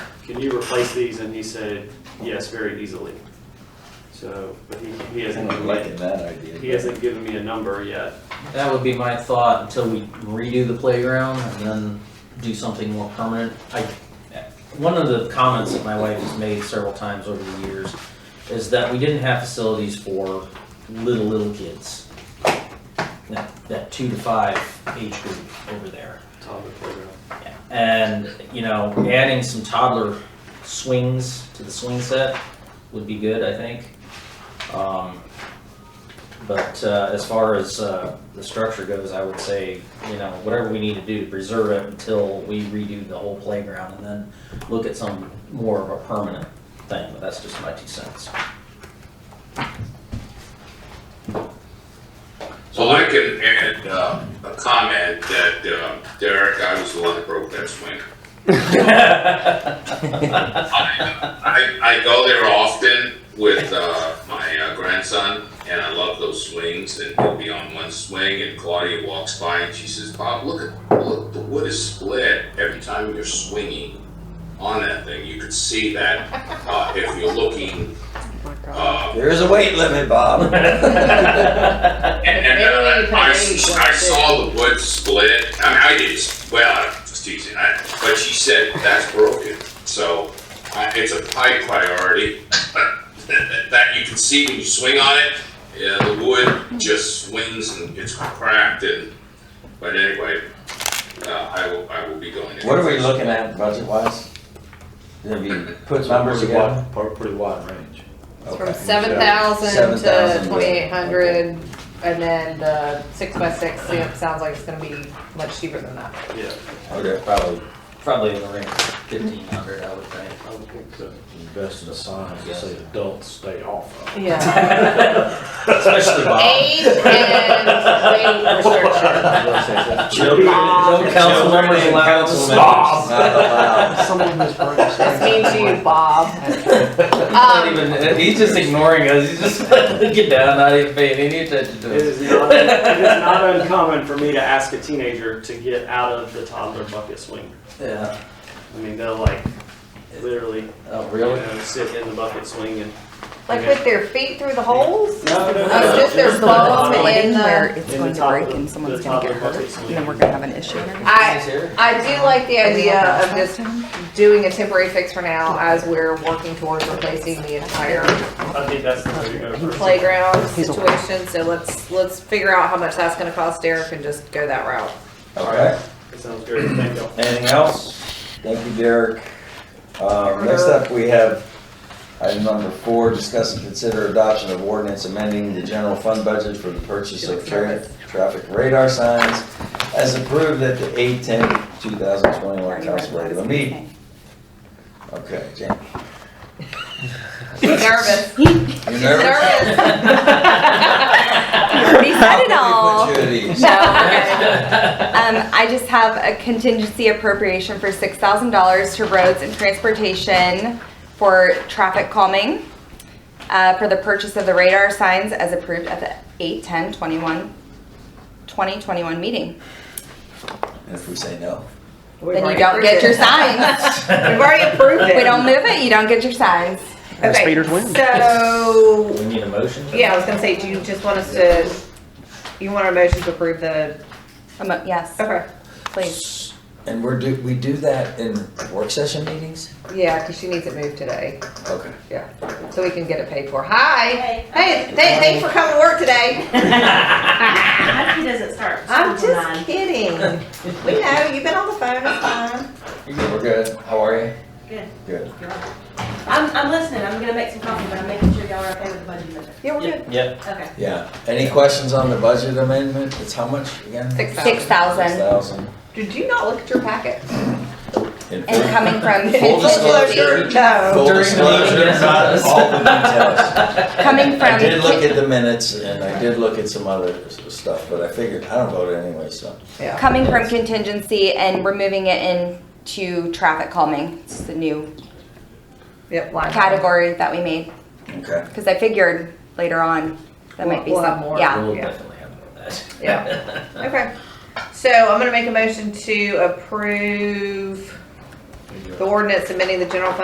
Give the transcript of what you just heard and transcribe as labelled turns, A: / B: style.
A: can you replace these? And he said, yes, very easily. So, but he, he
B: I'm
A: hasn't,
B: not liking that idea.
A: he hasn't given me a number yet.
C: That would be my thought until we redo the playground and then do something more permanent. I, one of the comments that my wife has made several times over the years is that we didn't have facilities for little, little kids. That, that two to five age group over there.
A: Toddler playground.
C: And, you know, adding some toddler swings to the swing set would be good, I think. Um, But uh, as far as uh, the structure goes, I would say, you know, whatever we need to do to preserve it until we redo the whole playground and then look at some more of a permanent thing, but that's just my two cents.
D: Well, I can add uh, a comment that uh, Derek, I was the one that broke that swing. I, I go there often with uh, my uh, grandson, and I love those swings. And he'll be on one swing, and Claudia walks by and she says, "Bob, look at look, the wood is split every time you're swinging on that thing. You could see that uh, if you're looking." Uh,
B: There is a weight limit, Bob.
D: And, and uh,
E: Maybe you can
D: I,
E: arrange one
D: I
E: too.
D: saw the wood split. I mean, I didn't. Well, I was teasing. I, but she said that's broken. So I, it's a high priority that, that you can see when you swing on it. Yeah, the wood just swings and gets cracked. And but anyway, uh, I will. I will be going. to-
B: What are we looking at budget wise? Did we put numbers
F: Pretty
B: together?
F: wide- par- Pretty wide range.
E: It's from
B: Okay.
E: seven thousand
B: 7,000
E: to twenty-eight hundred, and then the six by six, you know, it sounds like it's gonna be much cheaper than that.
A: Yeah,
B: Okay.
C: Probably, probably in the range of fifteen hundred, I would think.
F: I would think that invest in a sign to say adults stay off of.
E: Yeah.
C: Especially Bob.
E: Age and weight restriction.
C: Children- No council members
B: Children and
C: allowed.
B: council members not allowed.
E: That's mean to you, Bob.
C: Not
E: Um,
C: even- he's just ignoring us. He's just looking down, not even paying any attention
A: it
C: to us.
A: is not, it is not uncommon for me to ask a teenager to get out of the toddler bucket swing.
C: Yeah.
A: I mean, they'll like, literally, you
C: Oh, really?
A: know, sit in the bucket swing and.
E: like with their feet through the holes?
A: No, no, no.
E: Oh, just their
A: just the
E: bum
A: bottom.
E: and uh,
G: where
E: the,
G: it's
A: In
G: going
A: the
G: to
A: top
G: break
A: of-
G: and
A: the
G: someone's
A: top
G: gonna get
A: of
G: hurt,
A: buckets.
G: and then we're gonna have an issue.
E: I, I do like the idea of just doing a temporary fix for now as we're working towards replacing the entire
A: I think that's the way to go first.
E: playground situation, so let's, let's figure out how much that's gonna cost Derek and just go that route.
B: Okay,
A: That sounds great, thank you.
B: anything else? Thank you, Derek. Um, next up, we have item number four, discuss and consider adoption of ordinance amending the general fund budget for the purchase of tra- traffic radar signs as approved at the eight ten two thousand twenty-one council regular meeting. Okay, Jamie.
E: Nervous,
B: You
E: nervous.
G: He said it all.
B: Put you at ease.
G: No. Um, I just have a contingency appropriation for six thousand dollars to roads and transportation for traffic calming, uh, for the purchase of the radar signs as approved at the eight, ten, twenty-one, twenty, twenty-one meeting.
B: If we say no.
G: Then you don't get your signs.
E: We've already approved it.
G: If we don't move it, you don't get your signs.
E: Okay, So,
C: We need a motion?
E: yeah, I was gonna say, do you just want us to, you want our motion to approve the,
G: Um, Yes,
E: okay.
G: please.
B: And we're do, we do that in work session meetings?
E: Yeah, cause she needs it moved today,
B: Okay.
E: yeah, so we can get it paid for. Hi, hey, th- thanks for coming to work today.
H: He doesn't start.
E: I'm
H: school till
E: just
H: nine.
E: kidding. We know, you've been on the phone, it's fine.
B: We're good. How are you?
H: Good.
B: Good.
H: I'm, I'm listening, I'm gonna make some coffee, but I'm making sure y'all are okay with the budget amendment.
E: Yeah, we're good.
C: Yep, Yep,
H: Okay.
B: Yeah. Any questions on the budget amendment? It's how much again?
E: Six
G: Six thousand,
B: thousand.
E: Did you not look at your packet?
G: and coming from
B: Full
G: contingency,
B: disclosure.
E: No.
B: Full
C: During the
B: disclosure,
C: meeting,
B: not
C: yes.
B: all the details.
G: coming from.
B: I did look
G: ki-
B: at the minutes and I did look at some other s- stuff, but I figured, I don't vote anyway, so.
E: Yeah.
G: Coming from contingency and we're moving it into traffic calming. It's the new
E: Yep, line.
G: category that we made,
B: Okay.
G: because I figured later on that might be
E: We'll- we'll have
G: some,
E: more.
G: yeah.
C: we'll
E: Yeah.
C: definitely have more of that.
E: Yeah. Okay. So I'm gonna make a motion to approve the ordinance amending the general fund